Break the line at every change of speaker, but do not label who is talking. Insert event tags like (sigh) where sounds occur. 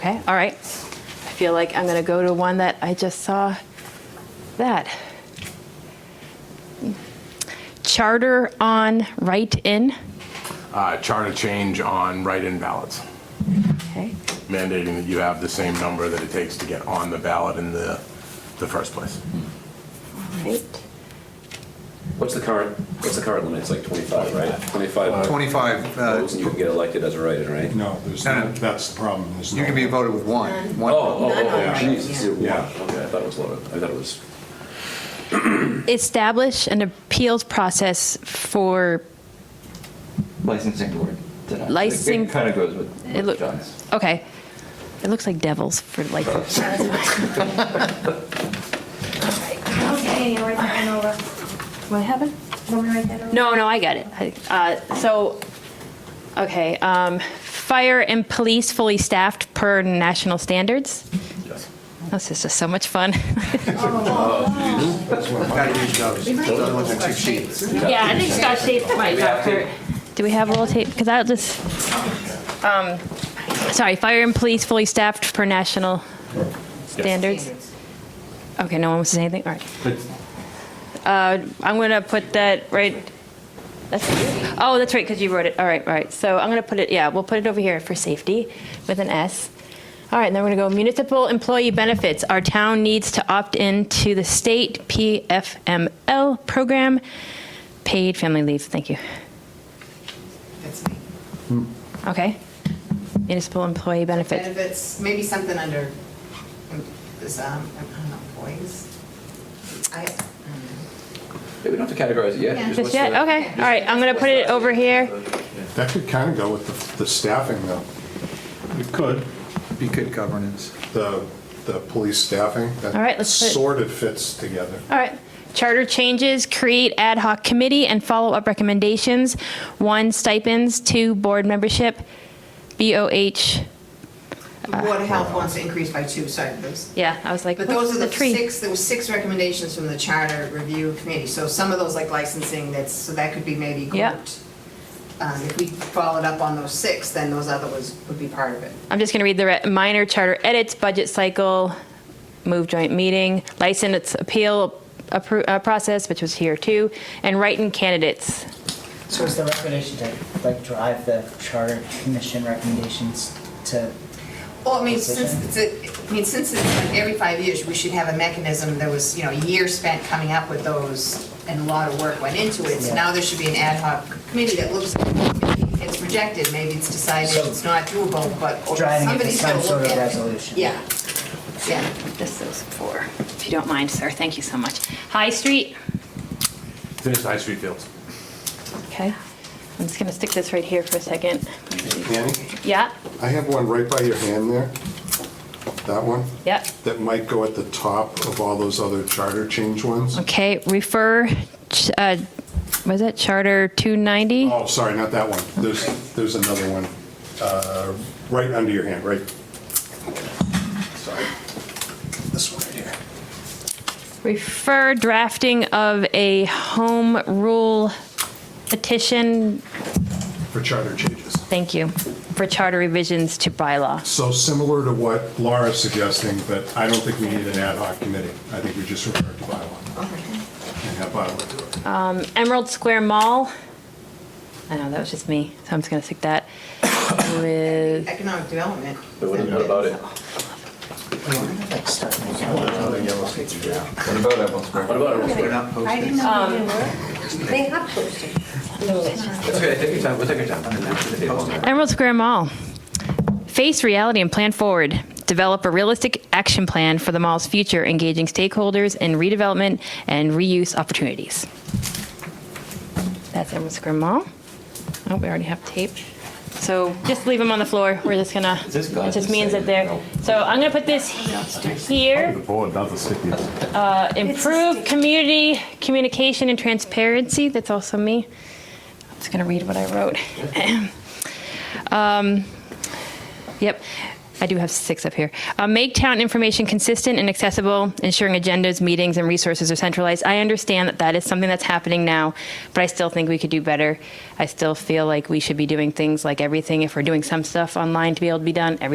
Okay, all right. I feel like I'm going to go to one that I just saw. That. Charter on write-in.
Uh, Charter change on write-in ballots,
Okay.
mandating that you have the same number that it takes to get on the ballot in the, the first place.
All right.
What's the current, what's the current limit? It's like 25, right? 25
25, uh,
votes and you can get elected as a writer, right?
No, there's,
No, no.
no- that's the problem. There's
you
no-
can be voted with one.
Oh,
One-
oh, oh,
Yeah.
geez, it's zero one.
Yeah.
Okay, I thought it was lower. I thought it was,
Establish an appeals process for,
licensing board. did I-
Licensing-
It kind of goes with
It
with
look-
John's.
okay. It looks like devils for like.
Okay, write that one over.
What happened?
Want me to write that over?
No, no, I got it. I- uh, So, okay, um, fire and police fully staffed per national standards.
yes.
This is just so much fun. (laughs)
Gotta use those. Those are the ones that cheat sheets.
Yeah, I think Scott State's my doctor. Do we have a little tape? Because I'll just, um, sorry, fire and police fully staffed per national standards? Okay, no one wants to say anything? All right. Uh, I'm going to put that right, that's, oh, that's right, because you wrote it. All right, all right. So I'm going to put it, yeah, we'll put it over here for safety with an S. All right, and then we're going to go municipal employee benefits. Our town needs to opt in to the state PFML program, paid family leave. Thank you.
That's me.
Okay. Municipal employee benefits.
Benefits, maybe something under, um, this, um, I don't know, employees. I,
Maybe we don't have to categorize it yet.
Yeah.
Just
Just
what's
yet?
the-
Okay, all right, I'm going to put it over here.
That could kind of go with the- the staffing, though. It could,
Be good governance.
the, the police staffing. that
All right, let's put it-
Sort of fits together.
All right. Charter changes, create ad hoc committee and follow-up recommendations. One, stipends. Two, board membership. BOH.
the mm. Board of Health wants to increase by two, sorry, those.
Yeah, I was like,
But those
what's
are
the
the
tree?
six, there were six recommendations from the Charter Review Committee. So some of those, like licensing, that's, so that could be maybe
Yeah.
grouped. Um, If we followed up on those six, then those other ones would be part of it.
I'm just going to read the re- minor charter edits, budget cycle, move joint meeting, license appeal appro- uh, process, which was here too, and write-in candidates.
So is the recommendation to like drive the charter commission recommendations to,
Well, I mean, since it's, a- I mean, since it's like every five years, we should have a mechanism that was, you know, a year spent coming up with those, and a lot of work went into it, so
Yeah.
now there should be an ad hoc committee that looks, maybe it's rejected, maybe it's decided
So-
it's not doable, but
Driving it to
somebody's gotta
some sort
look
of
at it.
resolution.
Yeah, yeah.
This is for, if you don't mind, sir, thank you so much. High Street.
Finish High Street Fields.
Okay. I'm just going to stick this right here for a second.
Annie,
Yeah,
I have one right by your hand there. That one,
yeah.
that might go at the top of all those other charter change ones.
Okay, refer, ch- uh, was it Charter 290?
Oh, sorry, not that one. There's, there's another one, uh, right under your hand, right? Sorry. This one right here.
Refer drafting of a home rule petition,
For charter changes.
thank you, for charter revisions to bylaw.
So similar to what Laura's suggesting, but I don't think we need an ad hoc committee. I think we just refer to bylaw and have bylaw do it.
Emerald Square Mall, I know, that was just me, so I'm just going to stick that (coughs) with,
Economic development.
But what what about it?
I wonder if, like start making
What about Evelyn's
What about it?
I didn't know
Um,
they were. They have posted.
That's okay, take your time, we'll take your time. We'll put the table on there.
Emerald Square Mall. Face reality and plan forward. Develop a realistic action plan for the mall's future, engaging stakeholders in redevelopment and reuse opportunities. That's Emerald Square Mall. Oh, we already have tape. So just leave them on the floor. We're just gonna, it
this gone?
just means that they're, so I'm gonna put this here. Uh,
board, not the stickiest.
Improve community communication and transparency. That's also me. I'm just going to read what I wrote. Um, Yep, I do have six up here. Uh, Make town information consistent and accessible, ensuring agendas, meetings, and resources are centralized. I understand that that is something that's happening now, but I still think we could do better. I still feel like we should be doing things like everything. If we're doing some stuff online to be able to be done, everything